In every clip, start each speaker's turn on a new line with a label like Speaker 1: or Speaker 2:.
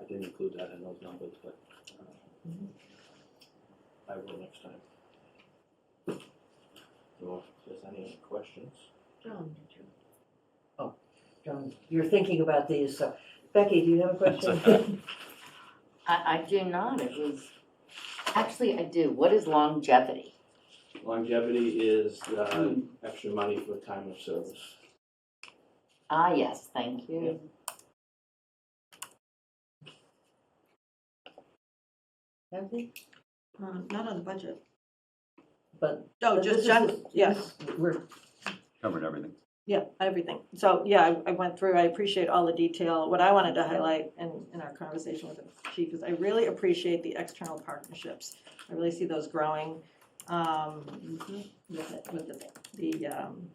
Speaker 1: I didn't include that in those numbers, but uh, I will next time. So if there's any questions?
Speaker 2: John, did you?
Speaker 3: Oh, John, you're thinking about these, so Becky, do you have a question?
Speaker 2: I, I do not, it was, actually, I do, what is longevity?
Speaker 1: Longevity is uh extra money for time of service.
Speaker 2: Ah, yes, thank you.
Speaker 3: Kathy?
Speaker 4: Um, not on the budget.
Speaker 3: But
Speaker 4: No,
Speaker 3: But
Speaker 4: just,
Speaker 3: this is- Mm-hmm.
Speaker 4: just, yes,
Speaker 3: we're,
Speaker 5: covered everything.
Speaker 4: yeah, everything. So, yeah, I, I went through, I appreciate all the detail. What I wanted to highlight in, in our conversation with the chief is I really appreciate the external partnerships. I really see those growing, um, with the, with the, the, um,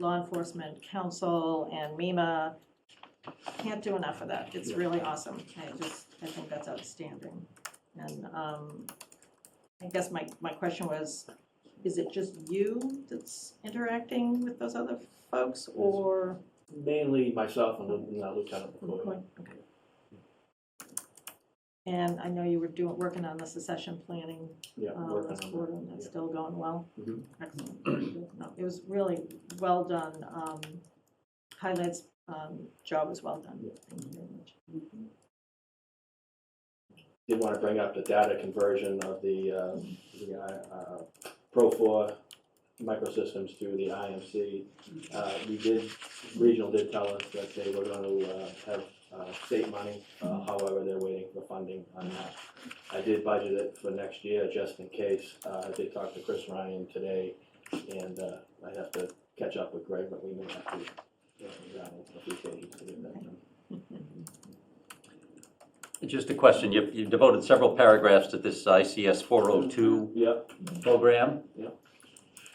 Speaker 4: law enforcement council and MEMA. Can't do enough of that. It's
Speaker 1: Yeah.
Speaker 4: really awesome. I just, I think that's outstanding. And, um, I guess my, my question was, is it just you that's interacting with those other folks or?
Speaker 1: Mainly myself and Lieu- uh, Lieutenant McCoy.
Speaker 4: Okay. And I know you were doing, working on the succession planning
Speaker 1: Yeah,
Speaker 4: um,
Speaker 1: working
Speaker 4: last
Speaker 1: on
Speaker 4: quarter,
Speaker 1: that.
Speaker 4: and that's
Speaker 1: yeah.
Speaker 4: still going well.
Speaker 1: Mhm.
Speaker 4: Excellent. No, It was really well done. um, Highlights, um, job was well done.
Speaker 1: Yeah.
Speaker 4: Thank you very much.
Speaker 1: Did want to bring up the data conversion of the, uh, the, uh, Pro Four microsystems to the IMC. Uh, we did, regional did tell us that they were gonna, uh, have, uh, state money, uh, however, they're waiting for funding on that. I did budget it for next year, just in case, uh, I did talk to Chris Ryan today, and, uh, I have to catch up with Greg, but we may have to, uh, down a few pages to get that done.
Speaker 5: Just a question, you've you've devoted several paragraphs to this ICS 402
Speaker 1: Yep,
Speaker 5: program.
Speaker 1: Yeah.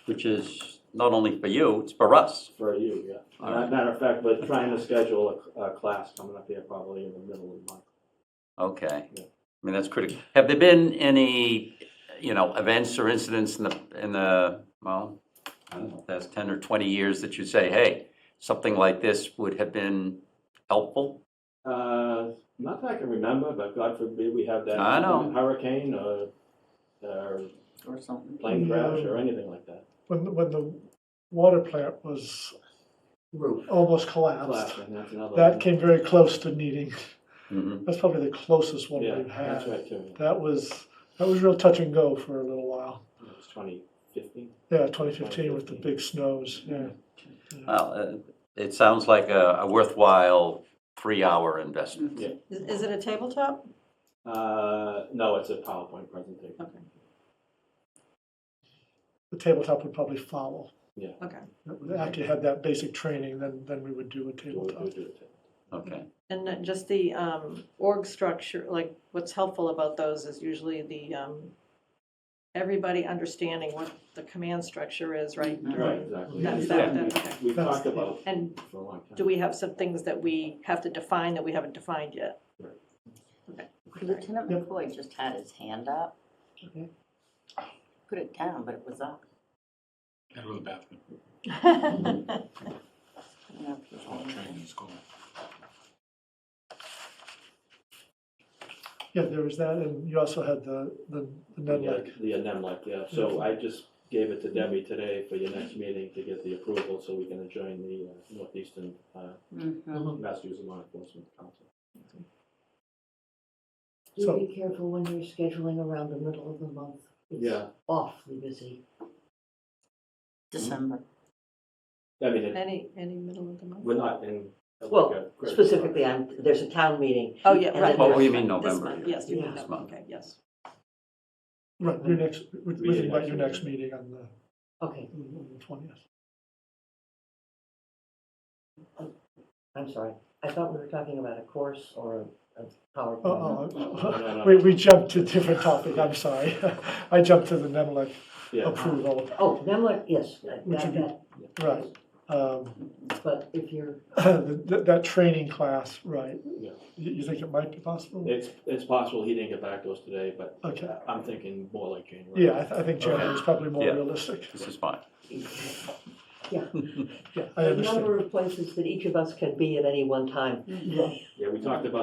Speaker 5: Which is not only for you, it's for us.
Speaker 1: for you, yeah.
Speaker 5: All
Speaker 1: Uh,
Speaker 5: right.
Speaker 1: Matter of fact, we're trying to schedule a, a class coming up here probably in the middle of the month.
Speaker 5: Okay.
Speaker 1: Yeah.
Speaker 5: I mean, that's critical. Have there been any, you know, events or incidents in the, in the, well, I don't know, that's 10 or 20 years that you say, hey, something like this would have been helpful?
Speaker 1: Uh, not that I can remember, but God forbid we have that.
Speaker 5: I know.
Speaker 1: Hurricane or, or
Speaker 2: Or something.
Speaker 1: plane crash or anything like that.
Speaker 6: when the, when the water plant was
Speaker 3: roof,
Speaker 6: almost collapsed.
Speaker 1: Class, and that's another.
Speaker 6: That
Speaker 1: one.
Speaker 6: came very close to needing,
Speaker 5: Mhm.
Speaker 6: that's probably the closest one
Speaker 1: Yeah,
Speaker 6: we've
Speaker 1: that's
Speaker 6: had.
Speaker 1: right too.
Speaker 6: That was, that was real touch and go for a little while.
Speaker 1: It was twenty fifteen.
Speaker 6: Yeah, twenty fifteen with the big snows, yeah.
Speaker 5: Well, uh, it sounds like a a worthwhile three-hour investment.
Speaker 4: Is is it a tabletop?
Speaker 1: Uh, no, it's a PowerPoint presentation.
Speaker 4: Okay,
Speaker 6: The tabletop would probably follow.
Speaker 4: okay.
Speaker 6: After you had that basic training, then, then we would do
Speaker 1: Do
Speaker 6: a
Speaker 1: it, do
Speaker 6: tabletop.
Speaker 1: it, do it.
Speaker 5: Okay.
Speaker 4: And then just the um, org structure, like what's helpful about those is usually the, um, everybody understanding what the command structure is, right?
Speaker 1: Right, exactly.
Speaker 4: That's
Speaker 1: Yeah,
Speaker 4: that, that, okay.
Speaker 1: We've
Speaker 6: That's-
Speaker 1: talked about it
Speaker 4: And
Speaker 1: for a long time.
Speaker 4: do we have some things that we have to define that we haven't defined yet?
Speaker 2: Lieutenant
Speaker 6: Yep.
Speaker 2: McCoy just had his hand up.
Speaker 6: Okay.
Speaker 2: Put it down, but it was up.
Speaker 7: Gotta go to the bathroom.
Speaker 2: I don't know if he's
Speaker 7: There's a lot
Speaker 2: on
Speaker 7: of
Speaker 2: there.
Speaker 7: training in school.
Speaker 6: Yeah, there was that, and you also had the, the the Ned
Speaker 1: Yeah,
Speaker 6: Lake.
Speaker 1: Yeah, NEMLAC, yeah, so I just gave it to Debbie today for your next meeting to get the approval, so we can join the uh, Northeastern uh,
Speaker 2: Mhm.
Speaker 1: Massachusetts Law Enforcement Council.
Speaker 3: do
Speaker 6: So-
Speaker 3: be careful when you're scheduling around the middle of the month. It's
Speaker 1: Yeah.
Speaker 3: Awfully busy.
Speaker 2: December.
Speaker 1: I mean, it-
Speaker 4: Any, any middle of the month?
Speaker 1: we're not in.
Speaker 3: Well, Specifically, uh, I'm, there's a town meeting,
Speaker 4: Oh, yeah,
Speaker 3: And
Speaker 4: right.
Speaker 3: then
Speaker 5: Well,
Speaker 4: we
Speaker 5: we mean
Speaker 4: This
Speaker 5: November.
Speaker 4: month, yes, you mean
Speaker 3: Yeah.
Speaker 5: This
Speaker 4: November,
Speaker 5: month.
Speaker 4: okay, yes.
Speaker 6: Right, your next, we're
Speaker 1: We did
Speaker 6: thinking about your
Speaker 1: actually.
Speaker 6: next meeting on the,
Speaker 3: okay,
Speaker 6: on the twentieth.
Speaker 3: I'm sorry, I thought we were talking about a course or a a PowerPoint.
Speaker 6: Oh, Uh, Uh-oh, oh. we, we jumped to a different topic, I'm sorry. I jumped to the Nemlik
Speaker 1: Yeah,
Speaker 6: approval,
Speaker 3: Oh, Nemlik, yes, that,
Speaker 6: Which would be-
Speaker 3: that,
Speaker 6: right. Um,
Speaker 3: but if you're,
Speaker 6: That, that training class, right.
Speaker 1: Yeah.
Speaker 6: You, you think it might be possible?
Speaker 1: it's, it's possible he didn't get back to us today, but uh,
Speaker 6: Okay.
Speaker 1: I'm thinking more like January.
Speaker 6: Yeah, I, th- I think January is probably more
Speaker 5: Yeah.
Speaker 6: realistic.
Speaker 5: This is fine.
Speaker 6: Yeah, I
Speaker 3: the
Speaker 6: understand.
Speaker 3: number of places that each of us can be at any one time
Speaker 1: Yeah, we talked about